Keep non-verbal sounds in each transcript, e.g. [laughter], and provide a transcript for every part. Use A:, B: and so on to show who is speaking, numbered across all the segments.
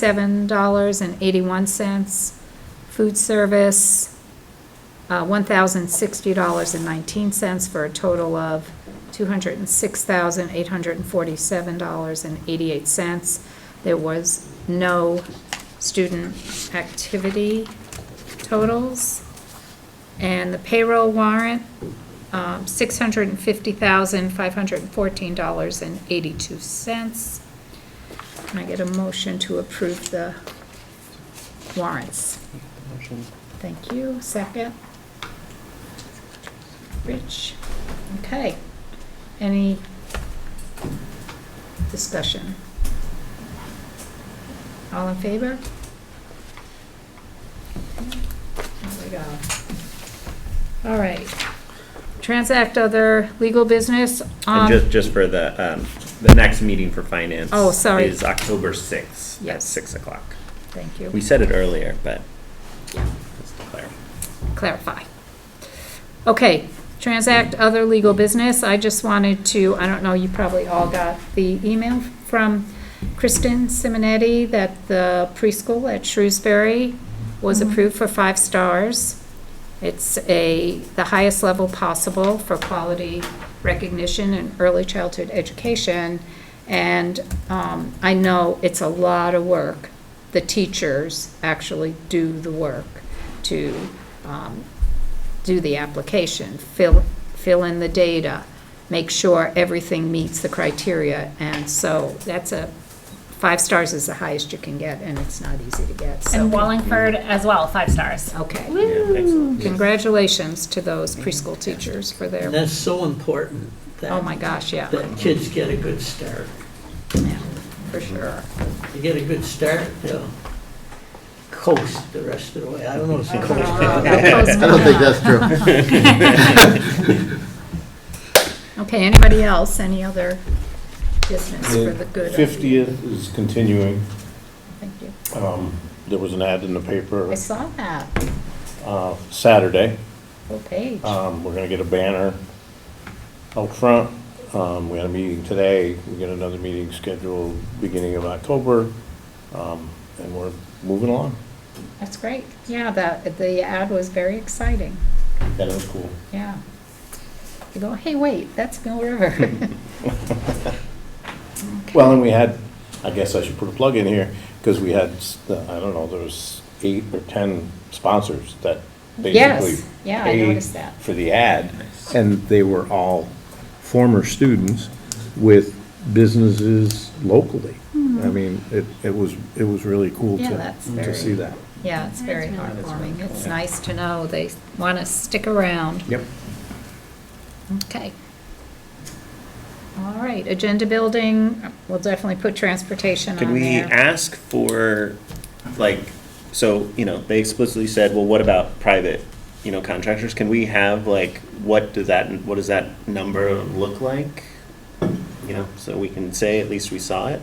A: seventy-seven dollars and eighty-one cents. Food service, uh, one thousand sixty dollars and nineteen cents for a total of two hundred and six thousand eight hundred and forty-seven dollars and eighty-eight cents. There was no student activity totals. And the payroll warrant, um, six hundred and fifty thousand five hundred and fourteen dollars and eighty-two cents. Can I get a motion to approve the warrants?
B: Motion.
A: Thank you. Second? Rich? Okay. Any discussion? All in favor? There we go. All right. Transact other legal business.
B: And
A: um,
B: just, just for the, um, the next meeting for finance.
A: Oh, sorry.
B: Is October sixth at
A: Yes.
B: six o'clock.
A: Thank you.
B: We said it earlier, but
A: Yeah.
B: just to clarify.
A: clarify. Okay, transact other legal business. I just wanted to, I don't know, you probably all got the email from Kristen Simonetti that the preschool at Shrewsbury was approved for five stars. It's a, the highest level possible for quality recognition in early childhood education. And um, I know it's a lot of work. The teachers actually do the work to um, do the application, fill, fill in the data, make sure everything meets the criteria. And so that's a, five stars is the highest you can get, and it's not easy to get, so.
C: And Wallingford as well, five stars.
A: Okay.
B: Yeah, excellent.
A: Congratulations to those preschool teachers for
D: And
A: their,
D: that's so important that.
A: oh my gosh, yeah,
D: That kids get a good start.
A: yeah, for sure.
D: They get a good start, they'll coast the rest of the way. I don't know if it's coast.
E: I don't think that's true.
A: Okay, anybody else, any other business for the good? of the-
F: Fiftieth is continuing.
A: Thank you.
F: Um, There was an ad in the
A: I
F: paper
A: saw that,
F: uh, Saturday.
A: whole page.
F: Um, We're gonna get a banner out front. Um, We had a meeting today. We got another meeting scheduled beginning of October. Um, And we're moving along.
A: That's great. Yeah, that, the ad was very exciting.
F: That was cool.
A: Yeah. You go, hey, wait, that's Mill River.
F: Well, and we had, I guess I should put a plug in here, because we had, I don't know, there was eight or 10 sponsors that basically
A: Yes, yeah, I
F: paid
A: noticed that.
F: for the ad, and they were all former students with businesses locally. I mean, it, it was, it was really cool
A: Hmm. Yeah,
F: to,
A: that's
F: to
A: very-
F: see that.
A: Yeah, it's very
C: That's
A: heartwarming. It's nice to know they want to stick around.
F: Yep.
A: Okay. All right, agenda building, we'll definitely put transportation
B: Can
A: on
B: we
A: there.
B: ask for, like, so, you know, they explicitly said, well, what about private, you know, contractors? Can we have, like, what does that, what does that number look like? You know, so we can say at least we saw it,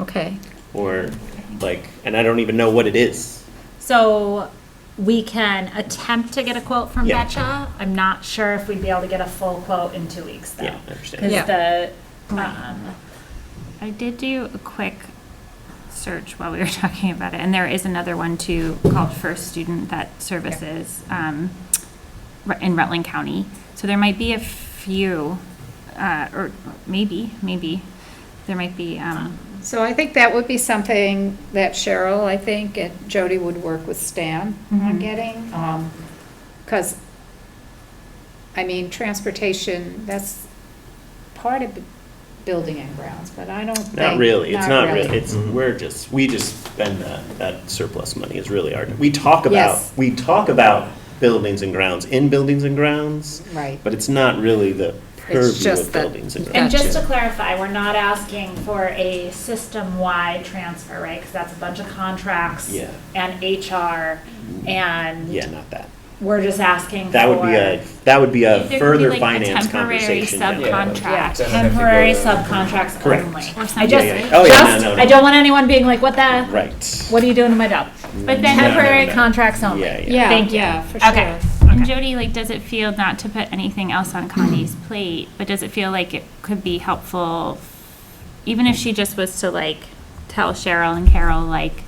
A: Okay,
B: or, like, and I don't even know what it is.
C: So we can attempt to get a quote from
B: Yeah.
C: Betcha. I'm not sure if we'd be able to get a full quote in two weeks though.
B: Yeah, I understand.
C: Because
A: Yeah.
C: the, um,
G: I did do a quick search while we were [laughs] talking about it, and there is another one too called First Student that services um, Rut- in Rutland County. So there might be a few, uh, or maybe, maybe, there might be, um,
A: so I think that would be something that Cheryl, I think, and Jody would work with Stan on
G: Mhm.
A: getting. Because, I mean, transportation, that's part of bu- building and grounds, but I don't think.
B: Not really, it's not really, it's, we're just, we just spend that, that surplus money is really our, we talk about,
A: Yes.
B: we talk about buildings and grounds, in buildings and grounds,
A: Right.
B: but it's not really the purview
A: just
B: of
A: that-
B: buildings and grounds.
C: and just to
A: Gotcha.
C: clarify, we're not asking for a system-wide transfer, right? Because that's a bunch of contracts.
B: Yeah.
C: And HR and
B: Yeah, not that.
C: we're just asking
B: That would be a,
C: for
B: that would be
G: There
B: a
G: could be
B: further
G: like a
B: finance
G: temporary
B: conversation. down the road.
G: subcontract.
H: Yeah.
C: temporary subcontracts
B: Correct.
C: only.
G: Or
C: I
G: something.
C: just,
B: Yeah, yeah. Oh, yeah, no,
C: just,
B: no, no.
C: I don't want anyone being like, what the?
B: Right.
C: What are you doing to my job? But then
B: No, no,
C: temporary
B: no.
C: contracts only.
B: Yeah, yeah.
A: Yeah,
C: Thank you.
A: yeah, for
C: Okay.
A: sure.
G: and Jody, like, does it feel, not to put anything else on
C: [clears throat]
G: Connie's plate, but does it feel like it could be helpful, even if she just was to like tell Cheryl and Carol, like,